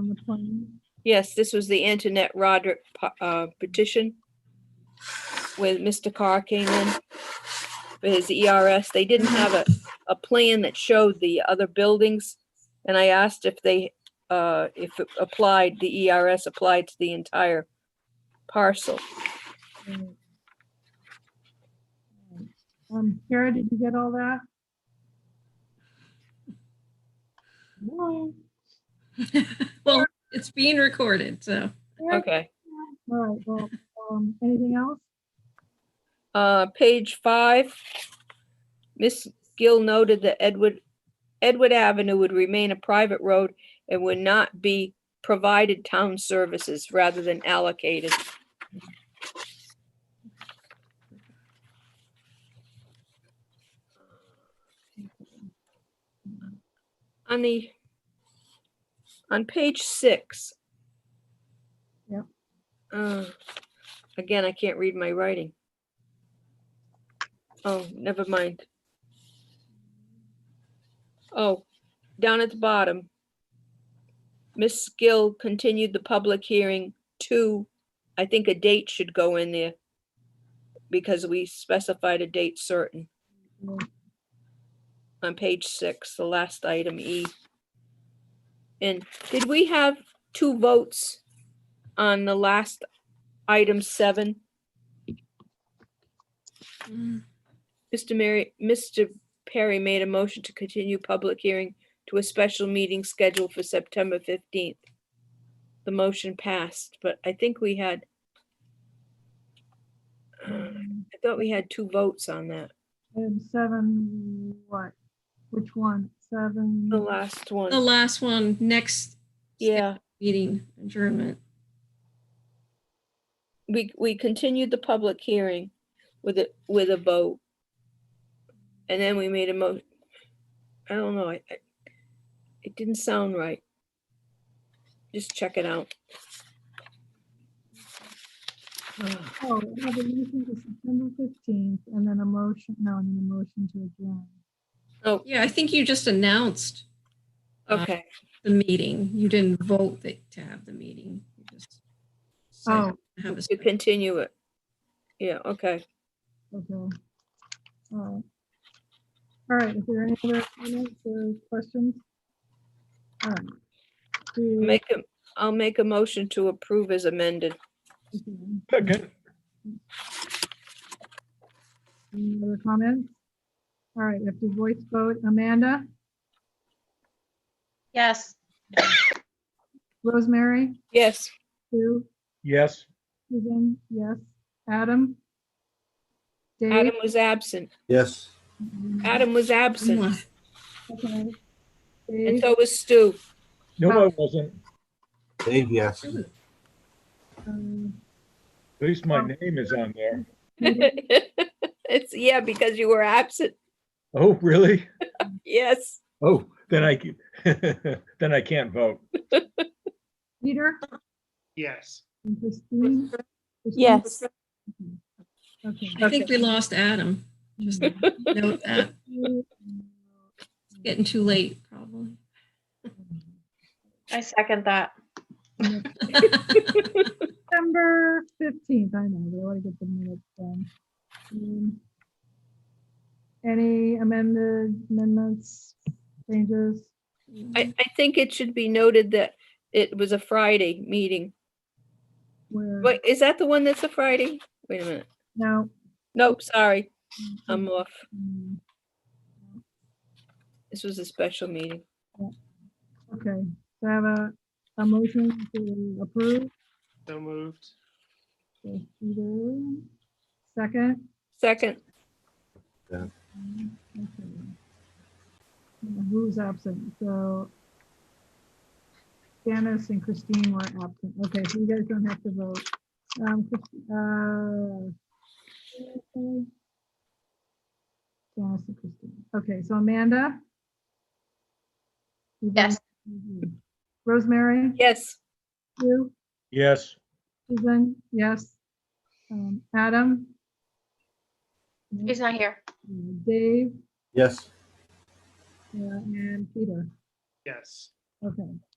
the plan? Yes, this was the Antoinette Roderick p- uh, petition when Mr. Carr came in for his ERS. They didn't have a, a plan that showed the other buildings. And I asked if they, uh, if it applied, the ERS applied to the entire parcel. Um, Kara, did you get all that? No. Well, it's being recorded, so. Okay. All right, well, um, anything else? Uh, page five, Miss Gill noted that Edward, Edward Avenue would remain a private road and would not be provided town services rather than allocated. On the, on page six. Yep. Uh, Again, I can't read my writing. Oh, never mind. Oh, down at the bottom. Miss Gill continued the public hearing to, I think a date should go in there because we specified a date certain Yeah. on page six, the last item E. And did we have two votes on the last item seven? Mr. Mary, Mr. Perry made a motion to continue public hearing to a special meeting scheduled for September fifteenth. The motion passed, but I think we had. I thought we had two votes on that, Item seven, what? Which one? Seven? oh, the last The one. last one, next Yeah, meeting adjournment. we, we continued the public hearing with a, with a vote. And then we made a mo, I don't know, I, I- it didn't sound right. Just check it out. Oh, we have a meeting to September fifteenth and then a motion, no, and then a motion to adjourn. Yeah, I think you just announced Uh, Okay, the meeting. You didn't vote that- to have the meeting. You just said Oh. have a- to continue it. Yeah, okay. Okay. All right. All right, is there any other comments or questions? All right. Do- Make a, I'll make a motion to approve as amended. okay. Second. Any other comments? All right, we have to voice vote. Amanda, Yes. Rosemary, Yes, Sue, Yes. Susan, yes, Adam? Dave? Adam was absent. Yes. Adam was absent, Okay. and Dave, so was Stu. No, I wasn't. Dave, yes. um, At least my name is on there. It's, yeah, because you were absent. Oh, really? Yes. Oh, then I, ca- then I can't vote. Peter? Yes. and Christine? Christine? Okay. I think we lost Adam. Just note that. It's Getting too late, probably. I second that. September fifteenth, I know, we want to get the minutes done. Um, Any amended amendments, changes? I, I think it should be noted that it was a Friday meeting. Where, Wait, is that the one that's a Friday? Wait a minute. no. Nope, sorry. I'm off. mm, This was a special meeting. Okay, so I have a, a motion to approve. So moved. so Peter, Second. Second, okay. Who's absent? So Janice and Christine were absent. Okay, so you guys don't have to vote. Um, Chris- uh, okay. Janice and Christine. Okay, so Amanda? You Yes. vote- mhm. Rosemary? yes. You? Yes. Susan? Yes. Um, Adam? He's not here. Dave? Yes. Yeah, And Peter? Yes. Okay,